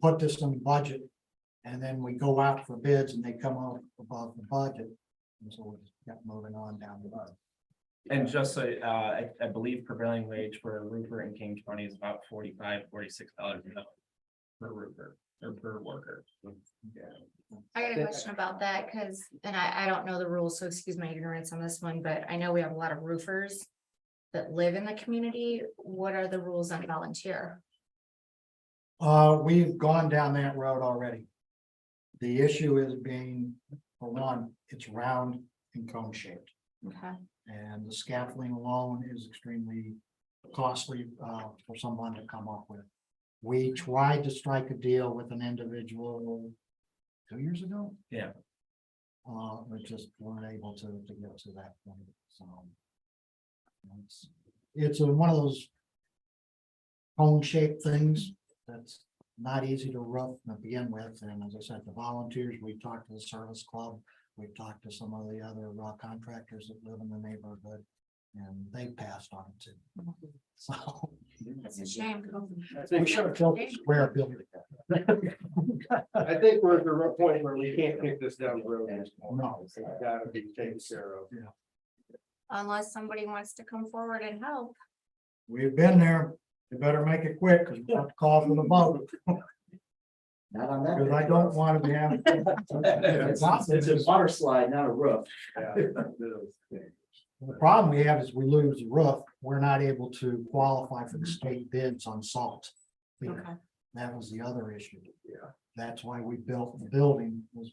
put this in the budget. And then we go out for bids and they come out above the budget. And so we just kept moving on down the road. And just so, uh, I, I believe prevailing wage for a roofer in King County is about forty-five, forty-six dollars an hour. Per roofer or per worker. I got a question about that, cause, and I, I don't know the rules, so excuse my ignorance on this one, but I know we have a lot of roofers. That live in the community, what are the rules on volunteer? Uh, we've gone down that road already. The issue is being, for one, it's round and cone shaped. Okay, And the scaffolding alone is extremely costly uh for someone to come up with. We tried to strike a deal with an individual two years ago. Yeah. Uh, we just weren't able to to get to that point, so. It's it's a- one of those cone shaped things that's not easy to rough to begin with, and as I said, the volunteers, we talked to the service club. We've talked to some of the other raw contractors that live in the neighborhood and they passed on it too. So. that's a shame. I We think, should have filled the square building. I think we're at the real point where we can't kick this down the road. anymore. No. It's gotta be taken care of. Unless somebody wants to come forward and help. We've been there. You better make it quick because we have to call for the vote. Not on that. Because I don't want to be having. It's it's a water slide, not a roof. Yeah. The problem we have is we lose the roof. We're not able to qualify for the state bids on salt. Okay, That was the other issue. Yeah. That's why we built the building was.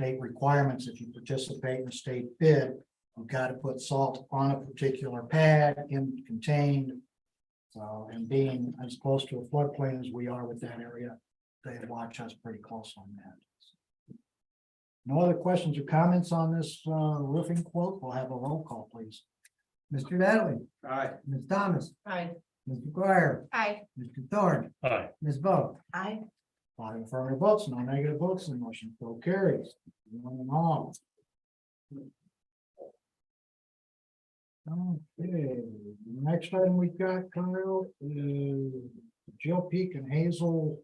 State requirements, if you participate in a state bid, you've got to put salt on a particular pad in contained. So, and being as close to a floodplain as we are with that area, they watch us pretty close on that. No other questions or comments on this uh, roofing quote? We'll have a roll call, please. Mr. Natalie, All right, Ms. Thomas, aye. Ms. McGuire, Aye. Mr. Thorne. Ms. Bo. Aye. Five affirmative votes, no negative votes, and the motion so carries. One and all. Okay, the next item we've got, Kyle, is Jill Peak and Hazel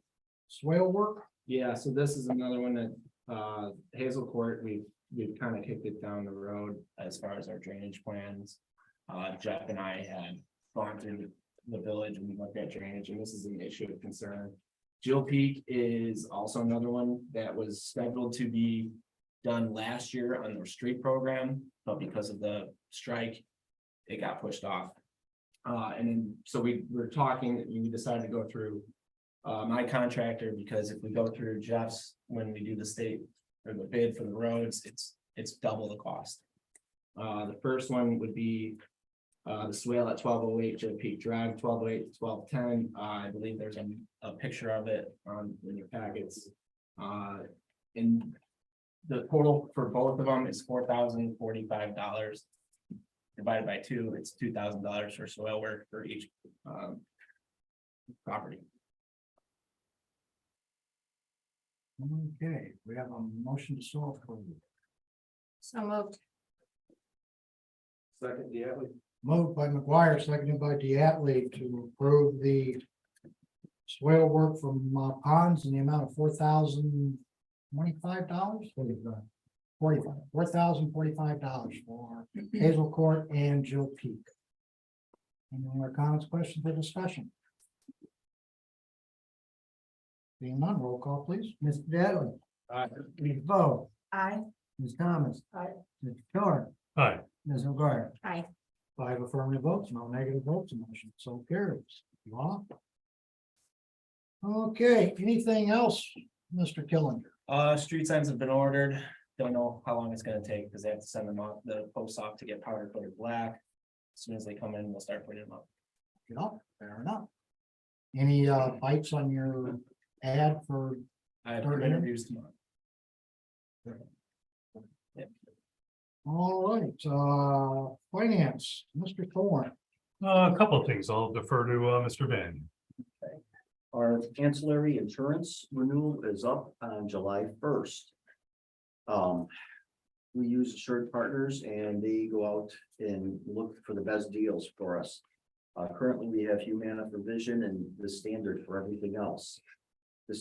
swale work. Yeah, so this is another one that, uh, Hazel Court, we've, we've kind of kicked it down the road as far as our drainage plans. Uh, Jeff and I had gone through the village and looked at drainage, and this is an issue of concern. Jill Peak is also another one that was scheduled to be done last year on their street program, but because of the strike, it got pushed off. Uh, and then, so we were talking, we decided to go through uh, my contractor, because if we go through Jeff's, when we do the state or the bid for the roads, it's, it's double the cost. Uh, the first one would be, uh, the swale at twelve oh eight, Joe Peak Drive, twelve oh eight, twelve ten, uh, I believe there's a, a picture of it on, in your packets. Uh, and the total for both of them is four thousand forty-five dollars. Divided by two, it's two thousand dollars for soil work for each, um, property. Okay, we have a motion to so approve. So moved. second, yeah, we- Moved by McGuire, seconded by Diatley to approve the swale work from uh, ponds in the amount of four thousand twenty-five dollars? Forty-five. Forty-five, four thousand forty-five dollars for Hazel Court and Jill Peak. Any more comments, questions, or discussion? Being none, roll call please. Mr. Natalie, all right. Ms. Bo, Aye. Ms. Thomas. Aye. Mr. Thorne. Aye. Ms. McGuire. Aye. Five affirmative votes, no negative votes, the motion so carries. Law? Okay, anything else, Mr. Killinger? Uh, street signs have been ordered. Don't know how long it's gonna take because they have to send them off, the posts off to get powder coated black. As Soon as they come in, we'll start putting them up. You know, fair enough. Any uh bites on your ad for, I have Start two in? interviews tomorrow. all right, uh, finance, Mr. Thorne? Uh, A couple of things. I'll defer to uh, Mr. Van. Our ancillary insurance renewal is up on July first. Um, we use assured partners and they go out and look for the best deals for us. Uh, currently, we have Humana for vision and the standard for everything else.